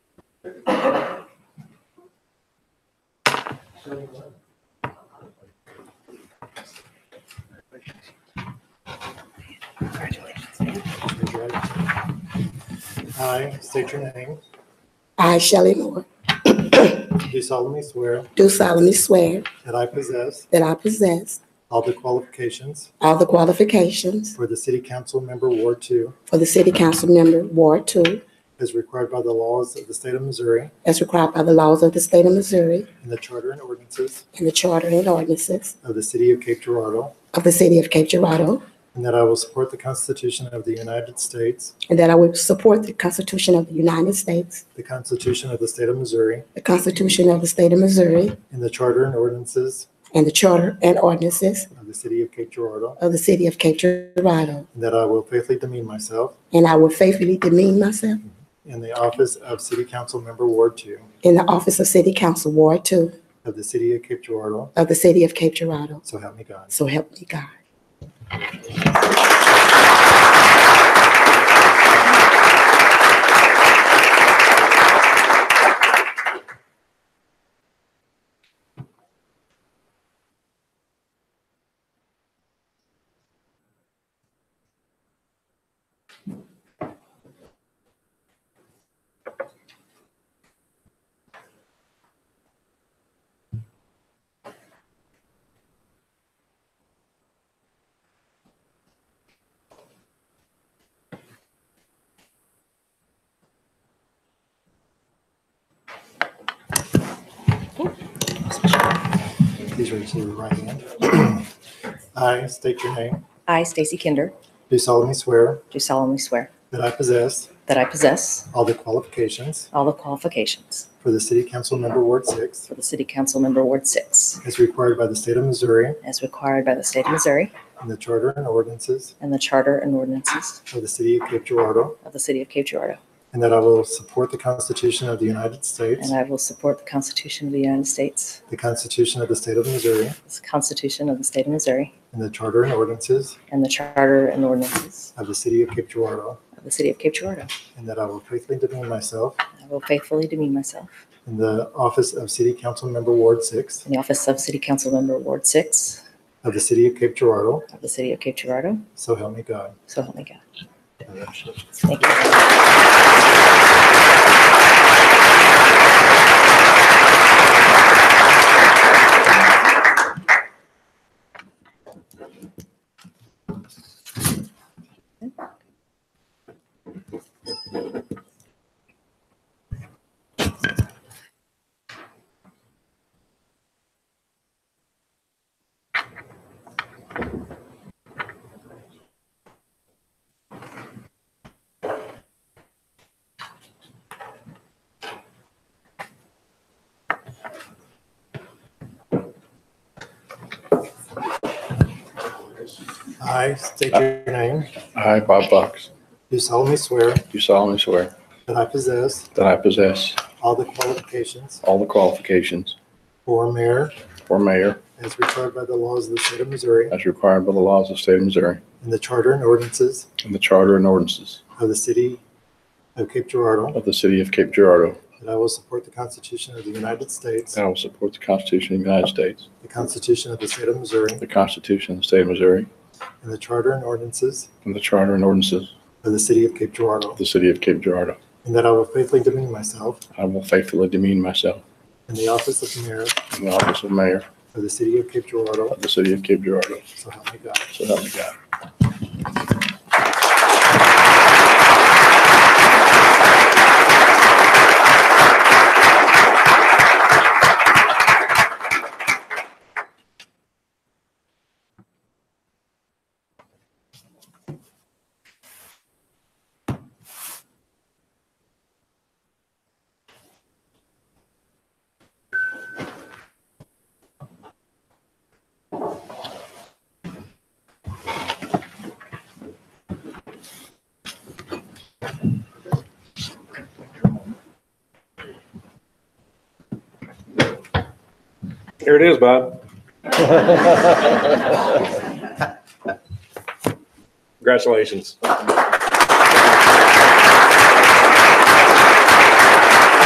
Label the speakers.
Speaker 1: Raise your right hand. I state your name.
Speaker 2: I, Shelley Moore,
Speaker 1: Do solemnly swear
Speaker 2: do solemnly swear
Speaker 1: that I possess
Speaker 2: that I possess
Speaker 1: all the qualifications
Speaker 2: all the qualifications
Speaker 1: for the City Council Member Ward Two
Speaker 2: for the City Council Member Ward Two
Speaker 1: as required by the laws of the state of Missouri
Speaker 2: as required by the laws of the state of Missouri
Speaker 1: and the charter and ordinances
Speaker 2: and the charter and ordinances
Speaker 1: of the City of Cape Girardeau,
Speaker 2: of the City of Cape Girardeau,
Speaker 1: and that I will support the Constitution of the United States,
Speaker 2: and that I will support the Constitution of the United States,
Speaker 1: the Constitution of the state of Missouri,
Speaker 2: the Constitution of the state of Missouri,
Speaker 1: and the charter and ordinances
Speaker 2: and the charter and ordinances
Speaker 1: of the City of Cape Girardeau,
Speaker 2: of the City of Cape Girardeau,
Speaker 1: and that I will faithfully demean myself
Speaker 2: and I will faithfully demean myself
Speaker 1: in the office of City Council Member Ward Two
Speaker 2: in the office of City Council Ward Two
Speaker 1: of the City of Cape Girardeau,
Speaker 2: of the City of Cape Girardeau.
Speaker 1: so help me God.
Speaker 2: So help me God.
Speaker 1: Please raise your right hand. I state your name.
Speaker 3: I, Stacy Kinder,
Speaker 1: Do solemnly swear
Speaker 3: do solemnly swear
Speaker 1: that I possess
Speaker 3: that I possess
Speaker 1: all the qualifications
Speaker 3: all the qualifications
Speaker 1: for the City Council Member Ward Six
Speaker 3: for the City Council Member Ward 6,
Speaker 1: as required by the state of Missouri
Speaker 3: as required by the State of Missouri
Speaker 1: and the charter and ordinances
Speaker 3: and the Charter and ordinances
Speaker 1: of the City of Cape Girardeau,
Speaker 3: of the City of Cape Girardeau,
Speaker 1: and that I will support the Constitution of the United States,
Speaker 3: and I will support the Constitution of the United States,
Speaker 1: the Constitution of the state of Missouri,
Speaker 3: the Constitution of the State of Missouri,
Speaker 1: and the charter and ordinances
Speaker 3: and the Charter and ordinances
Speaker 1: of the City of Cape Girardeau,
Speaker 3: of the City of Cape Girardeau.
Speaker 1: and that I will faithfully demean myself
Speaker 3: I will faithfully demean myself
Speaker 1: in the office of City Council Member Ward Six
Speaker 3: in the office of City Council Member Ward 6
Speaker 1: of the City of Cape Girardeau,
Speaker 3: of the City of Cape Girardeau,
Speaker 1: so help me God.
Speaker 3: so help me God.
Speaker 1: Congratulations.
Speaker 3: Thank you.
Speaker 1: I state your name.
Speaker 4: I, Bob Fox,
Speaker 1: Do solemnly swear
Speaker 4: do solemnly swear
Speaker 1: that I possess
Speaker 4: that I possess
Speaker 1: all the qualifications
Speaker 4: all the qualifications
Speaker 1: for mayor
Speaker 4: for mayor
Speaker 1: as required by the laws of the state of Missouri
Speaker 4: as required by the laws of the state of Missouri
Speaker 1: and the charter and ordinances
Speaker 4: and the charter and ordinances
Speaker 1: of the city of Cape Girardeau,
Speaker 4: of the city of Cape Girardeau,
Speaker 1: that I will support the Constitution of the United States,
Speaker 4: that I will support the Constitution of the United States,
Speaker 1: the Constitution of the state of Missouri,
Speaker 4: the Constitution of the state of Missouri,
Speaker 1: and the charter and ordinances
Speaker 4: and the charter and ordinances
Speaker 1: of the city of Cape
Speaker 4: of
Speaker 1: Girardeau,
Speaker 4: the city of Cape Girardeau.
Speaker 1: and that I will faithfully demean myself
Speaker 4: I will faithfully demean myself
Speaker 1: in the office of mayor
Speaker 4: in the office of mayor
Speaker 1: of the city of Cape Girardeau,
Speaker 4: of the city of Cape Girardeau.
Speaker 1: so help me God.
Speaker 4: So help me God.
Speaker 5: Here it is, Bob. Congratulations.